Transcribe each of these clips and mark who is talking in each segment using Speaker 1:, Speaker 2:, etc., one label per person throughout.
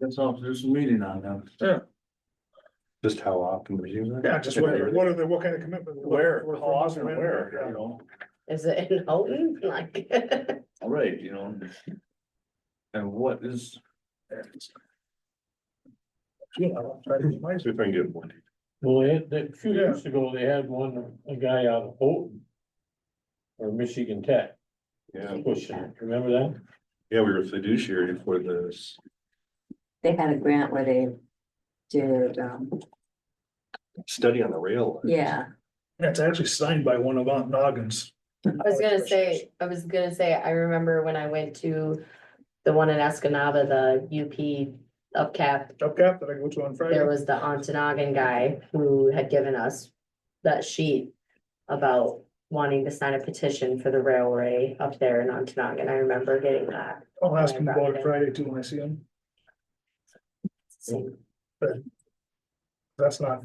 Speaker 1: That's all, there's a meeting on that.
Speaker 2: Just how often we use it?
Speaker 3: Yeah, just what, what are the, what kind of commitment? we're looking
Speaker 2: Where,
Speaker 3: for
Speaker 2: how
Speaker 3: from this
Speaker 2: often, and where,
Speaker 3: commitment,
Speaker 2: you know?
Speaker 4: Is it in Houghton? Like,
Speaker 1: All right, you know. And what is,
Speaker 3: yeah. Yeah, I'll try to be nice.
Speaker 2: See if I can get one.
Speaker 5: Well, they had, a few
Speaker 3: Yeah.
Speaker 5: years ago, they had one, a guy out of Houghton. Or Michigan Tech
Speaker 2: Yeah,
Speaker 5: pushing it, remember that?
Speaker 2: yeah, we were fiduciary for this.
Speaker 6: They had a grant where they did, um,
Speaker 2: Study on the rail. lines.
Speaker 6: yeah,
Speaker 3: That's actually signed by one of Aunt Noggins.
Speaker 4: I was gonna say, I was gonna say, I remember when I went to the one in Escanaba, the UP upcap.
Speaker 3: Up cap that I go to on
Speaker 4: There
Speaker 3: Friday.
Speaker 4: was the Ontanogan guy who had given us that sheet about wanting to sign a petition for the railway up there in Ontanogan. I remember getting that.
Speaker 3: I'll ask him about it Friday too when I see him.
Speaker 4: So,
Speaker 3: That's not,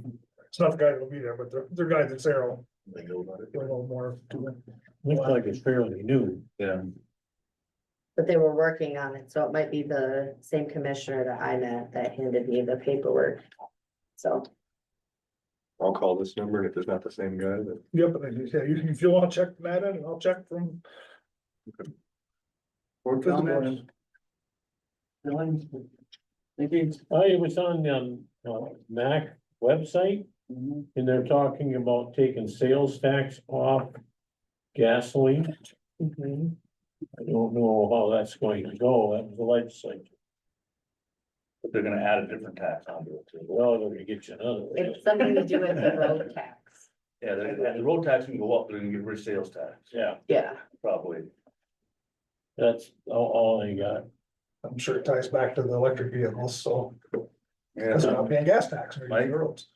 Speaker 3: it's not the guy that'll be there, but the, the guy that's there will,
Speaker 2: They know about it.
Speaker 3: will know more. to it.
Speaker 5: Looks like it's fairly new.
Speaker 2: Yeah,
Speaker 4: But they were working on it, so it might be the same commissioner that I met that handed me the paperwork. So,
Speaker 2: I'll call this number, and if it's not the same guy, then
Speaker 3: Yep, and then, yeah, you can, if you wanna check that in, I'll check from,
Speaker 1: or
Speaker 3: Doesn't matter.
Speaker 1: comments? Feelings? Thinking?
Speaker 5: I was on, um, uh, Mac website
Speaker 3: Mm-hmm.
Speaker 5: and they're talking about taking sales tax off gasoline.
Speaker 4: mhm.
Speaker 5: I don't know how that's going to go, that was the legislature.
Speaker 7: But they're gonna add a different tax onto it too.
Speaker 5: Well, they're gonna get you another. one.
Speaker 4: it's something to do with the road tax.
Speaker 7: Yeah, they're gonna- the road tax can go up, they're gonna get rid of sales tax,
Speaker 5: Yeah,
Speaker 4: Yeah.
Speaker 7: probably.
Speaker 5: that's all, all I got.
Speaker 3: I'm sure it ties back to the electric vehicles, so. That's
Speaker 2: yeah,
Speaker 3: not paying Uh, gas tax or
Speaker 7: Mike?
Speaker 3: anything else.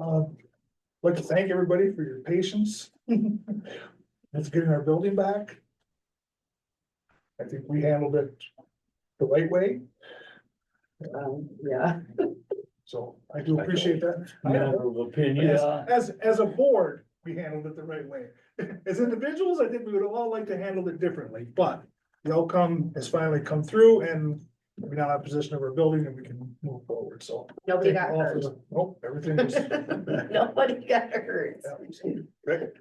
Speaker 3: Uh, like to thank everybody for your patience. It's getting our building back. I think we handled it the right way,
Speaker 4: Um, yeah,
Speaker 3: so I do appreciate that. I don't know.
Speaker 5: Matter of opinion.
Speaker 3: Yes, as, as a board, we handled it the right way. As individuals, I think we would all like to handle it differently, but the outcome has finally come through and we now have possession of our building and we can move forward, so.
Speaker 4: nobody got
Speaker 3: Thank you all for
Speaker 4: hurt.
Speaker 3: the- Nope, everything was.
Speaker 4: Nobody got hurt.
Speaker 3: Great.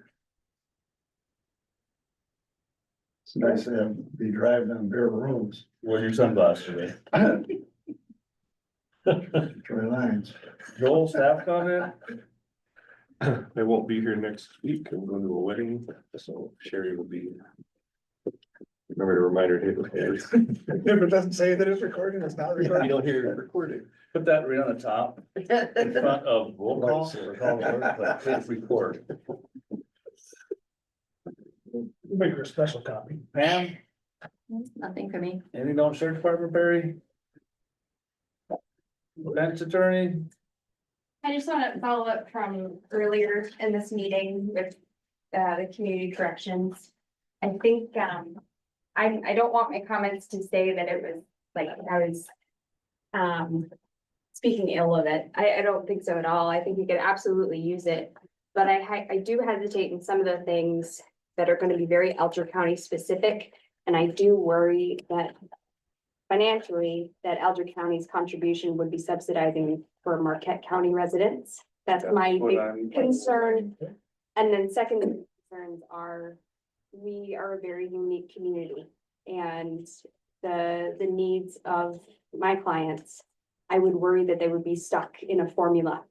Speaker 1: It's nice to have- be driving on bare roads,
Speaker 7: Where's your sunglasses today?
Speaker 1: dry lines.
Speaker 7: Joel, staff comment?
Speaker 2: I won't be here next week, I'm going to a wedding, so Sherry will be. Remember to remind her. to hit-
Speaker 3: If it doesn't say that it's recording, it's not
Speaker 7: You
Speaker 3: recording.
Speaker 7: don't hear recorded. Put that right on the top in front of roll call. call to order, but Please record.
Speaker 3: Make her a special copy.
Speaker 7: Pam,
Speaker 6: nothing for me.
Speaker 7: anything on sheriff department, Barry? Defense attorney?
Speaker 8: I just want to follow up from earlier in this meeting with uh, the community corrections. I think, um, I, I don't want my comments to say that it was like I was um, speaking ill of it. I, I don't think so at all. I think you could absolutely use it. But I, hi- I do hesitate in some of the things that are going to be very Elder County specific. And I do worry that financially, that Elder County's contribution would be subsidizing for Marquette County residents. That's my
Speaker 2: what
Speaker 8: big
Speaker 2: I'm-
Speaker 8: concern. And then second concerns are, we are a very unique community and the, the needs of my clients. I would worry that they would be stuck in a formula.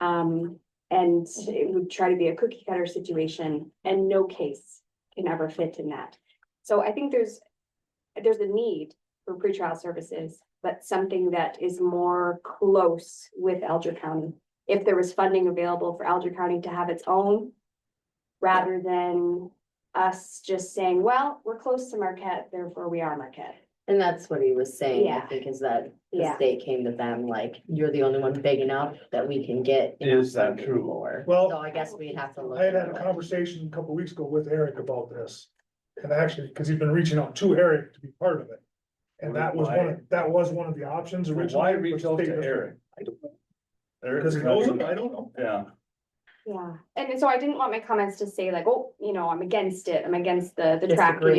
Speaker 8: Um, and it would try to be a cookie cutter situation and no case can ever fit in that. So I think there's, there's a need for pretrial services, but something that is more close with Elder County if there was funding available for Alger County to have its own. Rather than us just saying, well, we're close to Marquette, therefore we are Marquette.
Speaker 4: And that's what he was saying, I
Speaker 8: Yeah.
Speaker 4: think, is that the
Speaker 8: Yeah.
Speaker 4: state came to them like, you're the only one big enough that we can get.
Speaker 7: Is that
Speaker 4: funding
Speaker 7: true?
Speaker 4: for."
Speaker 3: Well-
Speaker 4: So I guess we'd have to look.
Speaker 3: I had had
Speaker 4: into
Speaker 3: a
Speaker 4: it.
Speaker 3: conversation a couple weeks ago with Eric about this. And actually, because he's been reaching out to Eric to be part of it. And that was one, of that was one of the options originally.
Speaker 7: Why reach
Speaker 3: which
Speaker 7: out
Speaker 3: they
Speaker 7: to
Speaker 3: just-
Speaker 7: Eric? Eric-
Speaker 3: Because he knows him, I don't know.
Speaker 7: Yeah.
Speaker 8: Yeah. And so I didn't want my comments to say like, oh, you know, I'm against it, I'm against the, the
Speaker 4: Disagree.
Speaker 8: tracking